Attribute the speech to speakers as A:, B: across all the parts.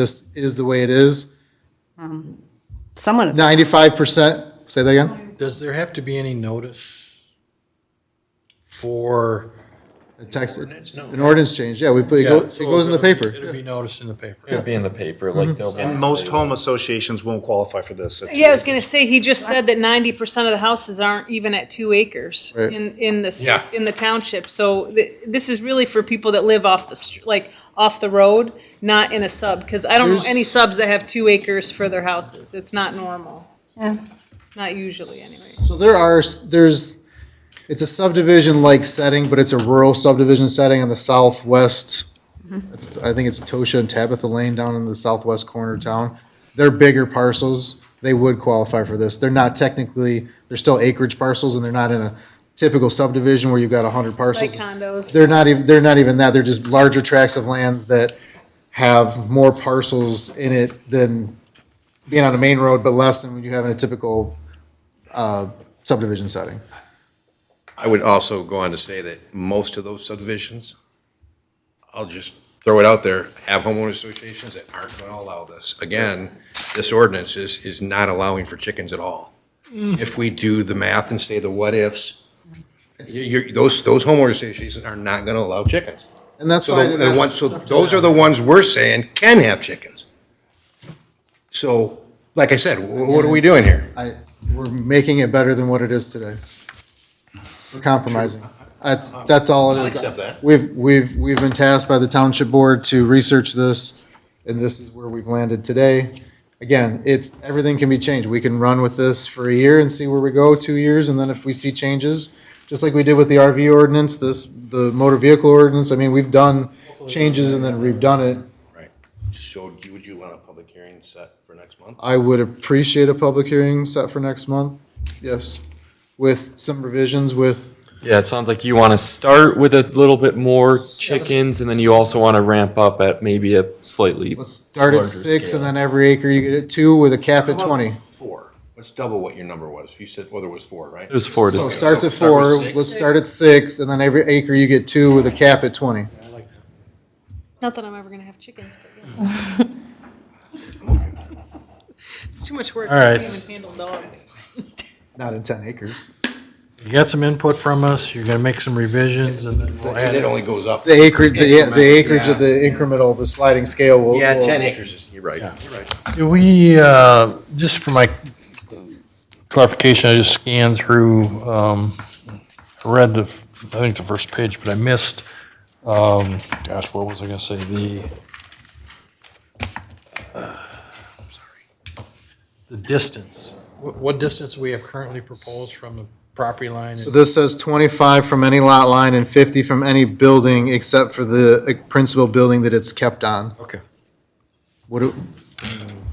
A: this is the way it is.
B: Someone,
A: Ninety-five percent, say that again,
C: Does there have to be any notice for,
A: A text, an ordinance change, yeah, we, put- it
C: Yeah,
A: goes, it goes in the
C: it'll
A: paper.
C: be noticed in the paper?
D: It'd be in the paper,
A: Mm-hmm.
D: like they'll. be-
E: And most home associations won't qualify for this. It's-
F: Yeah, I was gonna say, he just said that ninety percent of the houses aren't even at two acres
A: Right.
F: in, in the, s-
C: Yeah.
F: in the township. So th- this is really for people that live off the, str- like, off the road, not in a sub, because I don't know
A: There's-
F: any subs that have two acres for their houses. It's not normal.
B: Yeah.
F: Not usually, anyway.
A: So there are, s- there's, it's a subdivision-like setting, but it's a rural subdivision setting on the southwest.
F: Mm-hmm.
A: It's- I think it's Tosha and Tabitha Lane down in the southwest corner of town. They're bigger parcels, they would qualify for this. They're not technically, they're still acreage parcels and they're not in a typical subdivision where you've got a hundred
F: It's like
A: parcels.
F: condos.
A: They're not even, they're not even that, they're just larger tracts of lands that have more parcels in it than being on a main road, but less than what you have in a typical uh, subdivision setting.
G: I would also go on to say that most of those subdivisions, I'll just throw it out there, have homeowner associations that aren't going to allow this. Again, this ordinance is, is not allowing for chickens at all. If we do the math and say the what-ifs, you're, those, those homeowner associations are not going to allow chickens.
A: And that's
G: So
A: why.
G: the, the ones, so those are the ones we're saying can have chickens. So, like I said, wh- what are we doing here?
A: I, we're making it better than what it is today. We're compromising. That's, that's all it
G: I'll
A: is.
G: accept that.
A: We've, we've, we've been tasked by the township board to research this, and this is where we've landed today. Again, it's, everything can be changed. We can run with this for a year and see where we go, two years, and then if we see changes, just like we did with the RV ordinance, this, the motor vehicle ordinance, I mean, we've done changes and then we've done it.
G: Right. So do- would you want a public hearing set for next month?
A: I would appreciate a public hearing set for next month, yes, with some revisions with,
D: Yeah, it sounds like you want to start with a little bit more chickens, and then you also want to ramp up at maybe a slightly.
A: let's start at
D: Larger
A: six and
D: scale.
A: then every acre you get at two with a cap at
G: How about
A: twenty.
G: Four. Let's double what your number was. You said, well, there was four, right?
D: It was four to
A: So it
D: six.
A: starts at
G: Start
A: four,
G: with six.
A: let's start at six, and then every acre you get two with a cap at twenty.
F: Not that I'm ever gonna have chickens, but yeah. It's too much work.
C: All right.
F: I can't even handle dogs.
A: Not in ten acres.
C: You got some input from us, you're gonna make some revisions and then we'll add
G: It
C: it.
G: only goes up.
A: The acreage, the, yeah, the
G: Incremental,
A: acreage of
G: yeah.
A: the incremental, the sliding scale will.
G: Yeah,
A: will-
G: ten acres is, you're right, you're right.
C: Do we, uh, just for my clarification, I just scanned through, um, I read the, f- I think the first page, but I missed, um, gosh, what was I gonna say, the. I'm sorry. The distance. What, what distance we have currently proposed from the property line?
A: So this says twenty-five from any lot line and fifty from any building except for the uh, principal building that it's kept on.
C: Okay.
A: What, do-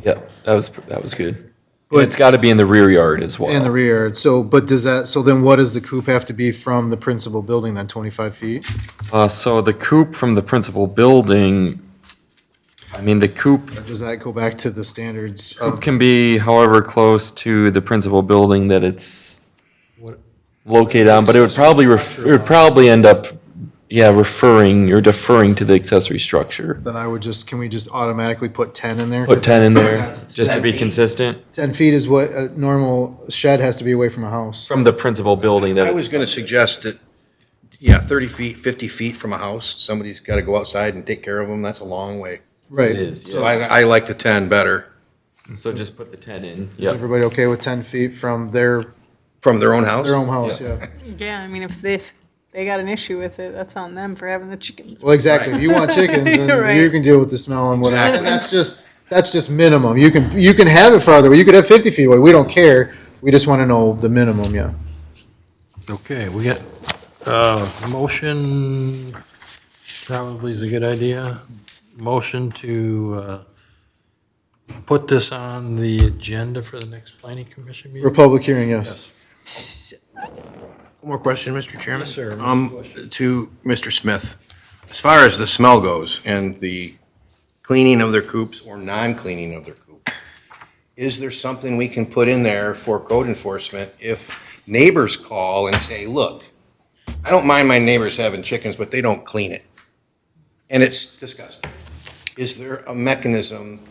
D: Yeah, that was that was good.
A: But-
D: But it's got to be in the rear yard as well.
A: In the rear, yard. so, but does that, so then what does the coop have to be from the principal building then, 25 feet?
D: Uh, so the coop from the principal building. I mean, the coop
A: Or Does that go back to the standards
D: Coop
A: of,
D: can be however close to the principal building that it's
C: What-
D: located on, but it would probably, ref- it would probably end up, yeah, referring, or deferring to the accessory structure.
A: then I would just, can we just automatically put 10 in there?
D: Put 10 in there,
A: That's-
D: just to be consistent,
A: 10 feet is what a normal shed has to be away from a house.
D: from the principal building that
G: I was
D: it's,
G: gonna suggest that, yeah, thirty feet, fifty feet from a house, somebody's gotta go outside and take care of them, that's a long way.
A: Right.
D: is,
G: So I, I like the ten better,
D: so just put the 10 in, yeah.
A: Everybody okay with 10 feet from their,
G: from their own house.
A: their own house, yeah.
F: Yeah, I mean, if they, if they got an issue with it, that's on them for having the chickens.
A: Well, exactly. If you want chickens, then
F: Right.
A: you can deal with the smell and whatever. And
G: Exactly.
A: that's just, that's just minimum. You can, you can have it farther away. You could have 50 feet away. We don't care. We just want to know the minimum, yeah.
C: Okay, we got, uh, motion, probably is a good idea. Motion to, uh, put this on the agenda for the next planning commission
A: For a
C: meeting?
A: public hearing, yes.
G: One more question, Mr. Chairman?
C: Yes, sir.
G: Um, to Mr. Smith, as far as the smell goes and the cleaning of their coops or non-cleaning of their coop, is there something we can put in there for code enforcement if neighbors call and say, look, I don't mind my neighbors having chickens, but they don't clean it? And it's disgusting. Is there a mechanism